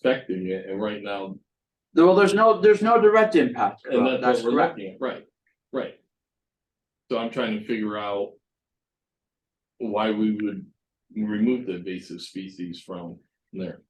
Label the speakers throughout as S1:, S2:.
S1: affecting it, and right now,
S2: No, well, there's no, there's no direct impact.
S1: and
S2: Well,
S1: that's
S2: That's
S1: what we're
S2: correct.
S1: looking at, right, right. So I'm trying to figure out. Why we would remove the invasive species from there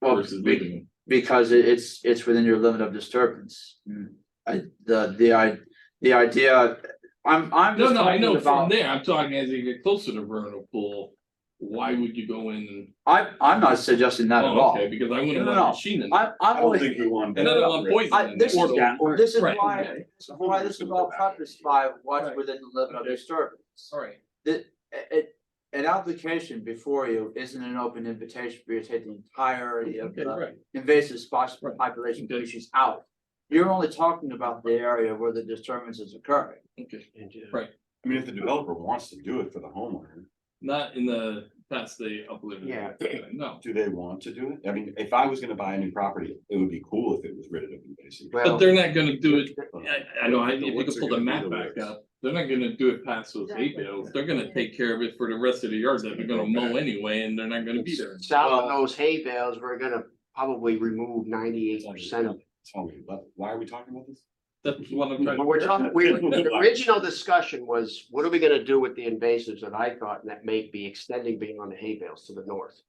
S2: Well,
S1: versus
S2: be-
S1: leaving them.
S2: because it- it's, it's within your limit of disturbance.
S1: Hmm.
S2: I, the, the, I, the idea, I'm, I'm
S1: No,
S2: just
S1: no, I
S2: talking
S1: know from
S2: about,
S1: there, I'm talking as you get closer to vernal pool, why would you go in? and
S2: I, I'm not suggesting that at
S1: Oh,
S2: all.
S1: okay, Because I
S2: No,
S1: wouldn't
S2: no,
S1: want
S2: no.
S1: a machine in there.
S2: I, I'm
S3: I don't
S2: only,
S3: think we want.
S1: And I don't want poison
S2: I,
S1: in
S2: this is,
S1: there.
S3: Yeah.
S2: this is
S1: Right.
S2: why, this is why this is all prefaced by what's
S1: Right.
S2: within the limit of
S1: Okay.
S2: disturbance.
S1: Sorry.
S2: A- a- an application before you isn't an open invitation for you to take the entirety of
S1: Okay,
S2: the
S1: right,
S2: invasive spots
S1: Right.
S2: population
S1: Okay.
S2: issues out. You're only talking about the area where the disturbance is occurring.
S1: okay,
S3: I mean, if the developer wants to do it for the homeowner,
S1: not in the, that's the uplift.
S2: Yeah.
S1: No,
S3: do they want to do it? I mean, if I was gonna buy a new property, it would be cool if it was rid of invasive.
S1: but
S2: Well-
S1: they're not gonna do it
S3: but-
S1: I, I know, I, if
S3: The
S1: you
S3: woods
S1: could
S3: are
S1: pull the
S3: gonna be
S1: map
S3: the
S1: back
S3: woods.
S1: up, they're not gonna do it past those hay
S4: Exactly.
S1: bales, they're gonna take care of it for the rest of the yard that they're gonna mow anyway, and they're not gonna be there.
S5: South
S2: Well-
S5: of those hay bales, we're gonna probably remove ninety-eight percent of it.
S3: Tell me, but why are we talking about this?
S1: That's what I'm trying,
S5: But we're talking, we, the original discussion was, what are we gonna do with the invasives that I thought that may be extending beyond the hay bales to the north?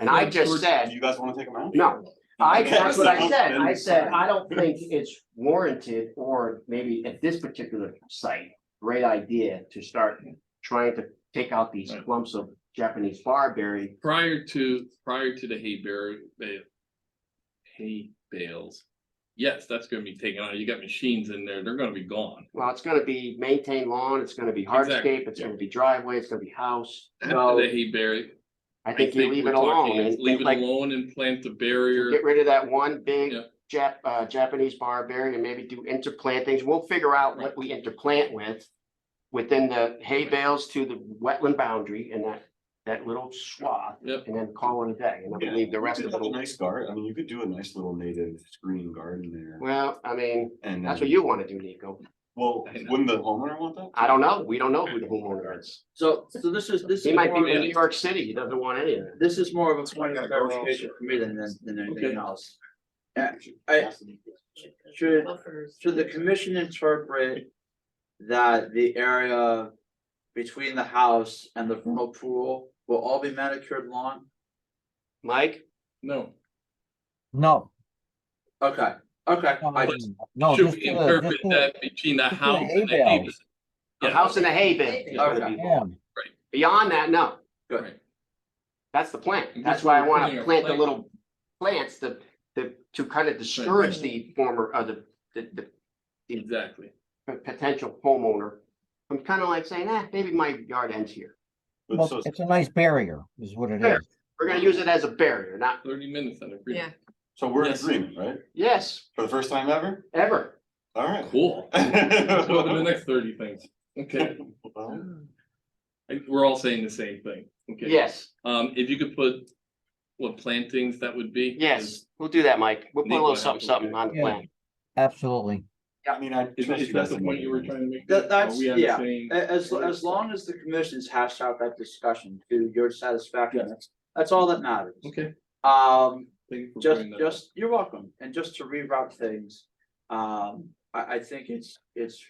S5: And I just
S3: Do
S5: said,
S3: you guys wanna take them out?
S5: no, I,
S3: Okay.
S5: that's what I said, I said, I don't think it's warranted, or maybe at this particular site, great idea to start trying to take out these
S1: Right.
S5: clumps of Japanese barberry.
S1: prior to, prior to the hay bear, bale. Hay bales, yes, that's gonna be taken out, you got machines in there, they're gonna be gone.
S5: Well, it's gonna be maintained lawn, it's gonna be
S1: Exactly.
S5: hardscape, it's gonna be driveway, it's gonna be house.
S1: After the
S5: So
S1: hay bear.
S5: I think you leave
S1: we're
S5: it alone
S1: talking,
S5: and
S1: Leave it
S5: like,
S1: alone and plant the barrier.
S5: get rid of that one big
S1: Yeah.
S5: Jap, uh, Japanese barberry and maybe do interplantings. We'll figure out
S1: Right.
S5: what we interplant with. Within the hay bales to the wetland boundary and that, that little swath.
S1: Yep.
S5: And then call it a day and I
S3: Yeah,
S5: believe the
S3: you
S5: rest
S3: could
S5: of it.
S3: have a
S5: will-
S3: Nice garden, I mean, you could do a nice little native screen garden there
S5: Well, I mean,
S3: and.
S5: that's
S3: then-
S1: Mm.
S5: what you wanna do, Nico.
S3: Well,
S1: I know.
S3: wouldn't the homeowner want that?
S5: I don't know. We don't know who the homeowner is.
S2: So, so this is, this
S5: He
S2: is
S5: might
S2: more,
S5: be in
S2: of
S5: New
S2: a-
S5: York City. He doesn't want any of it.
S2: this is more of a point of
S3: gotta go
S2: clarification for me than, than, than
S1: Okay.
S2: anything else. Yeah, I- Should, should the commission interpret that the area between the house and the vernal pool will all be manicured lawn?
S5: Mike?
S1: No,
S6: No,
S2: Okay, okay, I
S6: um,
S2: just,
S6: no,
S1: should
S6: just
S1: we
S6: the-
S1: interpret
S6: just the-
S1: that between the
S6: just the
S1: house
S6: hay
S1: and the hay?
S6: bales.
S5: A
S1: Yeah.
S5: house in a hay bin.
S2: Okay.
S6: Yeah,
S5: Beyond that, no,
S2: good.
S1: Right.
S5: that's the plant.
S1: And
S5: That's
S1: that's
S5: why
S1: where
S5: I
S1: we're
S5: wanna
S1: putting our
S5: plant the
S1: plant.
S5: little plants to, to, to kind of discourage the former, uh, the, the, the
S1: exactly.
S5: p- potential homeowner. from kind of like saying, eh, maybe my yard ends here.
S3: But
S6: well,
S3: so-
S6: it's a nice barrier is what it
S5: Fair.
S6: is.
S5: We're gonna use it as a barrier, not,
S1: Thirty minutes, I agree.
S4: Yeah.
S3: So we're in
S1: Yes.
S3: agreement, right?
S5: yes,
S3: For the first time ever?
S5: ever.
S3: All right.
S1: Cool. Go to the next thirty things. Okay,
S3: Well,
S1: I- we're all saying the same thing. Okay.
S5: Yes,
S1: Um, if you could put what plantings that would be.
S5: yes, we'll do that, Mike. We'll put a
S1: Nico
S5: little
S1: has
S5: something,
S1: it,
S5: something
S1: okay.
S5: on the
S6: Yeah.
S5: plan.
S6: Absolutely.
S3: I mean, I.
S1: Is
S3: trust
S1: that,
S3: you
S1: is
S3: guys
S1: that the
S3: to
S1: point
S3: make
S1: you were
S3: it.
S1: trying to make?
S2: That-
S1: Are
S2: that's-
S1: we on the
S2: yeah.
S1: same-
S2: A- As, as long as the commission's hashed out that discussion to your satisfaction, that's all that matters.
S1: Okay.
S2: Um,
S1: Thank you for
S2: just,
S1: bringing that up.
S2: just, you're welcome, and just to reroute things, um, I, I think it's, it's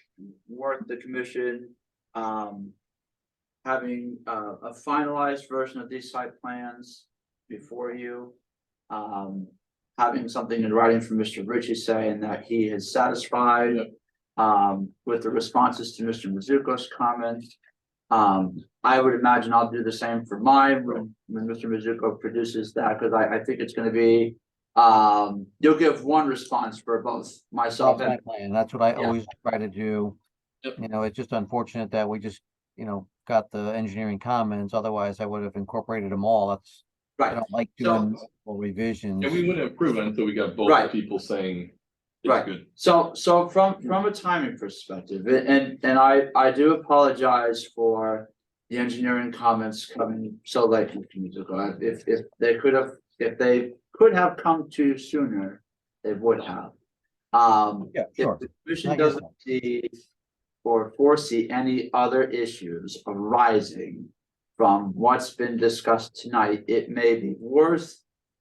S2: worth the commission, um. Having a, a finalized version of these site plans before you. Um, having something in writing from Mr. Ritchie saying that he is satisfied.
S1: Yep.
S2: Um, with the responses to Mr. Mizuko's comments. Um, I would imagine I'll do the same for mine when, when Mr. Mizuko produces that, because I, I think it's gonna be. Um, you'll give one response for both myself
S6: That's my
S2: and,
S6: plan. That's what I
S2: Yeah.
S6: always try to do.
S1: Yep.
S6: You know, it's just unfortunate that we just, you know, got the engineering comments. Otherwise I would have incorporated them all. That's, I
S2: right,
S6: don't like
S2: So-
S6: doing multiple revisions.
S1: And we wouldn't approve it until we got both
S2: Right.
S1: people saying. it's
S2: Right.
S1: good.
S2: so, so from, from a timing perspective, a- and, and I, I do apologize for. The engineering comments coming so late, Mr. Mizuko, I- if, if they could have, if they could have come to you sooner, they would have. Um.
S6: Yeah,
S2: If
S6: sure.
S2: the
S6: I
S2: commission
S6: get
S2: doesn't see or foresee any other issues arising from what's been discussed tonight, it may be worth